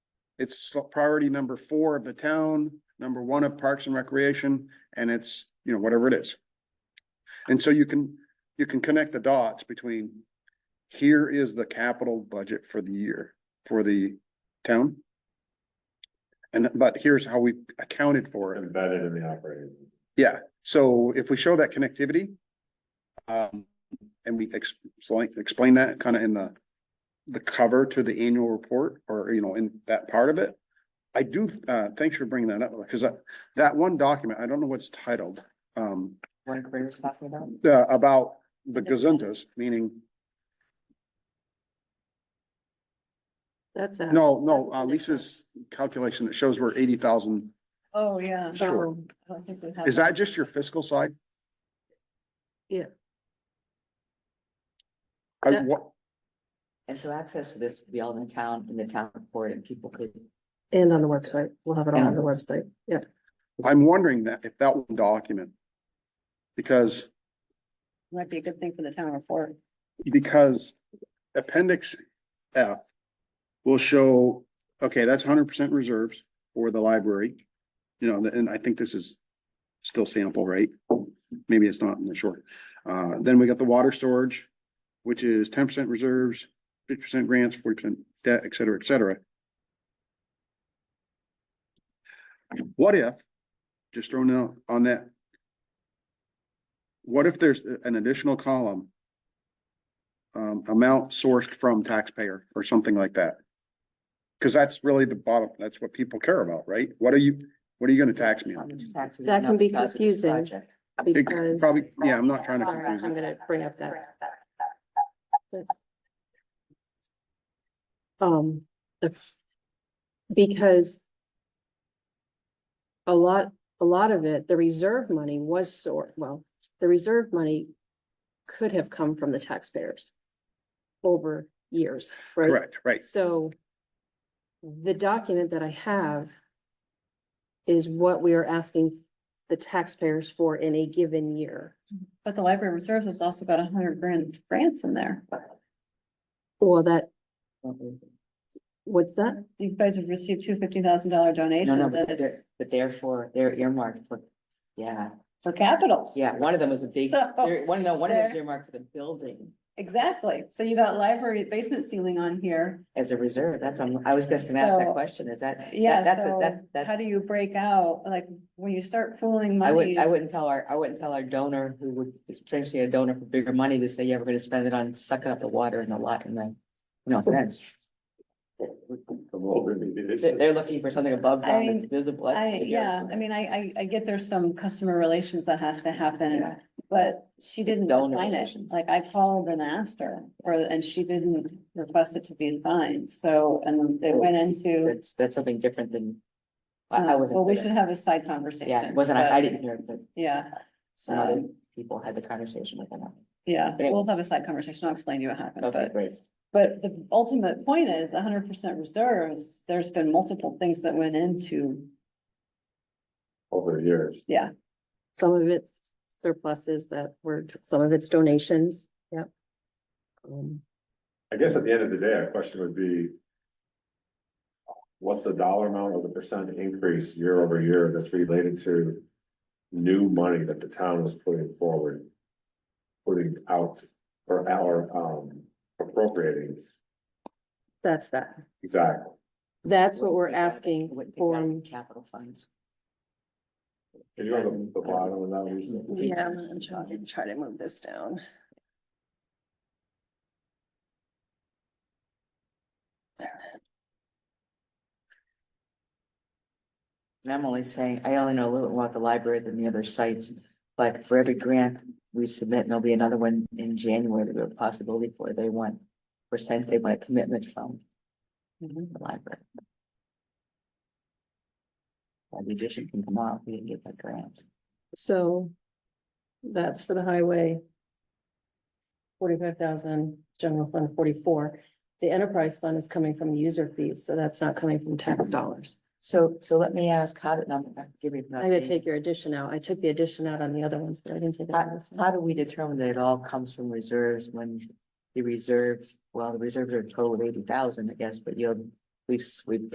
It's priority number four of the town, number one of Parks and Recreation, and it's, you know, whatever it is. And so you can, you can connect the dots between here is the capital budget for the year, for the town. And, but here's how we accounted for it. Embedded in the operating. Yeah, so if we show that connectivity. Um, and we ex- explain, explain that kind of in the. The cover to the annual report or, you know, in that part of it. I do, uh, thanks for bringing that up because that, that one document, I don't know what's titled, um, What Greg was talking about? uh, about the gazuntas, meaning, That's a. no, no, uh, Lisa's calculation that shows we're eighty thousand. Oh, yeah. Sure. Oh, I don't think we have Is that just your fiscal side? Yeah. I, That- what, And so access for this would be all in town, in the town report, and people could, And on the website, we'll have it all on the website, yeah. I'm wondering that if that one document. Because Might be a good thing for the town report. because appendix F will show, okay, that's hundred percent reserves for the library. You know, and I think this is still sample, right? Maybe it's not in the short. Uh, then we got the water storage, which is ten percent reserves, fifty percent grants, forty percent debt, et cetera, et cetera. What if, just throwing out on that. What if there's an additional column um, amount sourced from taxpayer or something like that. Cause that's really the bottom, that's what people care about, right? What are you, what are you gonna tax me how on? much taxes. That can be amount of confusing. project. It Because, Probably, yeah, I'm not trying to sorry, confuse I'm it. gonna bring up that, um, the- because a lot, a lot of it, the reserve money was sort, well, the reserve money could have come from the taxpayers over years, right? Correct, right. So the document that I have is what we are asking the taxpayers for in a given year. But the library reserves has also got a hundred grand grants in there. Well, that, what's that? You guys have received two fifty thousand dollar No, no, donations and but they're, it's but therefore, they're earmarked for, yeah, for capital. yeah, one of them was a big, So, oh, there- one, no, one of them was there- earmarked for the building Exactly. So you got library basement ceiling on here. as a reserve, that's, I'm- I was just gonna ask that So- question, is that? Yeah, that- that's a- so that's- that's- how do you break out, like, when you start pooling I money? wouldn't, I wouldn't tell our, I wouldn't tell our donor who would, is potentially a donor for bigger money to say, yeah, we're gonna spend it on sucking up the water in the lot and then, no offense. They're, they're looking for something above I them mean, that's visible. That's I, what they get. yeah, I mean, I, I, I get there's some customer relations that has to happen, but she didn't Donor define it. relations. Like, I called and asked her, or, and she didn't request it to be defined, so, and they went into. That's, that's something different than. I, I uh, wasn't. Well, we there. should have a side conversation. Yeah, it wasn't, I, but- I didn't hear, it, but Yeah, some other Um, people had the conversation with them. yeah, Anyway. we'll have a side conversation, I'll explain to you what happened, Okay, but. great. But the ultimate point is hundred percent reserves, there's been multiple things that went into, Over the years. yeah, Some of it's surpluses that were, some of it's donations, yep. Um, I guess at the end of the day, our question would be. What's the dollar amount or the percent increase year over year that's related to? New money that the town was putting forward. Putting out or our um appropriating, That's that. exactly. That's what we're Wouldn't take out of- asking wouldn't take out of for, Capital funds. Can you go to the bottom of that? Lisa? Yeah, I'm trying, try to move this down. And I'm only saying, I only know a little bit about the library than the other sites, but for every grant we submit, and there'll be another one in January that we have a possibility for, they want. Percent, they want a commitment from Mm-hmm. the library. Well, The addition can come out, we didn't get that grant. so that's for the highway. Forty-five thousand, general fund forty-four. The enterprise fund is coming from the user fees, so that's not coming from tax dollars. So, so let me ask, how did, I'm, I'm giving. I'm gonna take your addition out. I took the addition out on the other ones, but I didn't take it out on this one. How do we determine that it all comes from reserves when the reserves, well, the reserves are a total of eighty thousand, I guess, but you have, we've, s- we've